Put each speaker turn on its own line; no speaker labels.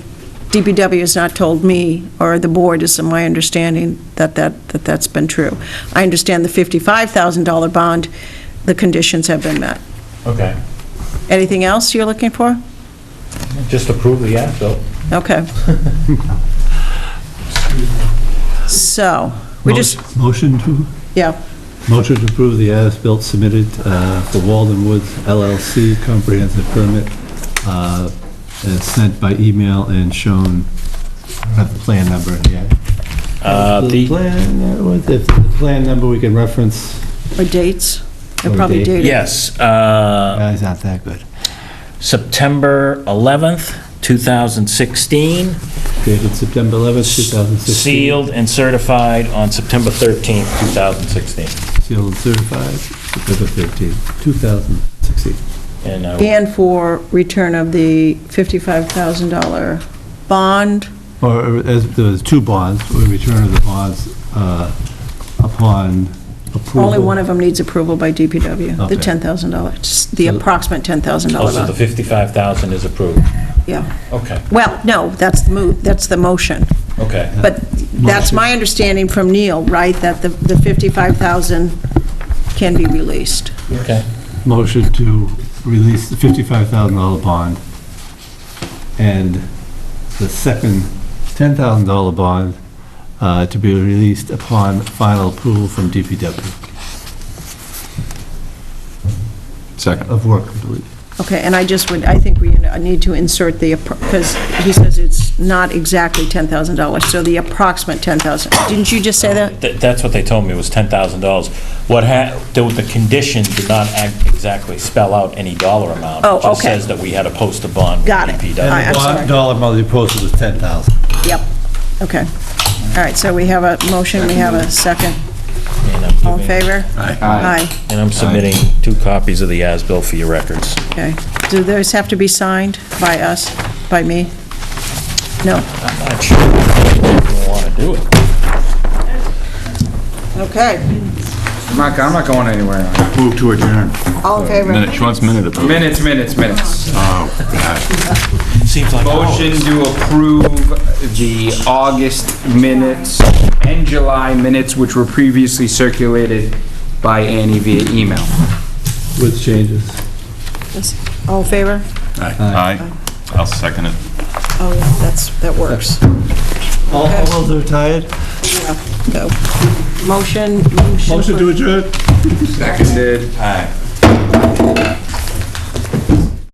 DPW has not told me, or the board is my understanding, that that, that that's been true. I understand the $55,000 bond, the conditions have been met.
Okay.
Anything else you're looking for?
Just approve the app, though.
Okay. So, we just,
Motion- Motion to,
yeah,
motion to approve the as-built submitted uh, for Walden Woods LLC comprehensive permit uh, as sent by email and shown, I don't have the plan number here. The plan, uh, was- if the plan number we can reference,
or dates. They're
Or
probably
date.
dated.
Yes, uh,
uh, it's not that good.
September 11th, 2016,
Dated September 11th, 2016.
sealed and certified on September 13th, 2016.
Sealed and certified, September 13th, 2016.
And uh, I will-
And for return of the $55,000 bond,
Or uh, as, there's two bonds, we return of the bonds uh, upon approval.
only one of them needs approval by DPW, the
Okay.
$10,000, just the
So-
approximate $10,000
also the
bond.
55,000 is approved.
Yeah,
Okay,
well, no, that's the move, that's the motion.
okay.
But that's my understanding from Neil, right, that the the 55,000 can be released.
Okay.
Motion to release the $55,000 bond and the second $10,000 bond uh, to be released upon final approval from DPW
Second.
of work completed.
Okay, and I just would, I think we need to insert the, because he says it's not exactly $10,000, so the approximate 10,000. Didn't you just say that?
Th- That's what they told me, was $10,000. What ha, the the condition did not act- exactly spell out any dollar amount.
Oh,
It just
okay.
says that we had to post a bond. with
Got it.
DPW.
All right, I'm
And the
sorry.
bond dollar amount of the proposal was $10,000.
Yep, okay. All right, so we have a motion, we have a second.
And I'm
All in
giving-
favor? Aye.
And I'm submitting two copies of the as-built for your records.
okay. Do those have to be signed by us, by me? No?
I'm not sure if you want to do it.
Okay.
I'm not, I'm not going anywhere.
Move to adjourn.
All in favor?
Minute, she wants minute approval.
Minutes, minutes, minutes.
Seems like
Motion to approve the August minutes and July minutes, which were previously circulated by Annie via email.
With changes.
All in favor?
Aye. I'll second it.
Oh, yeah, that's, that works.
All all those that are tired?
Go. Motion, motion.
Motion to adjourn?
Seconded.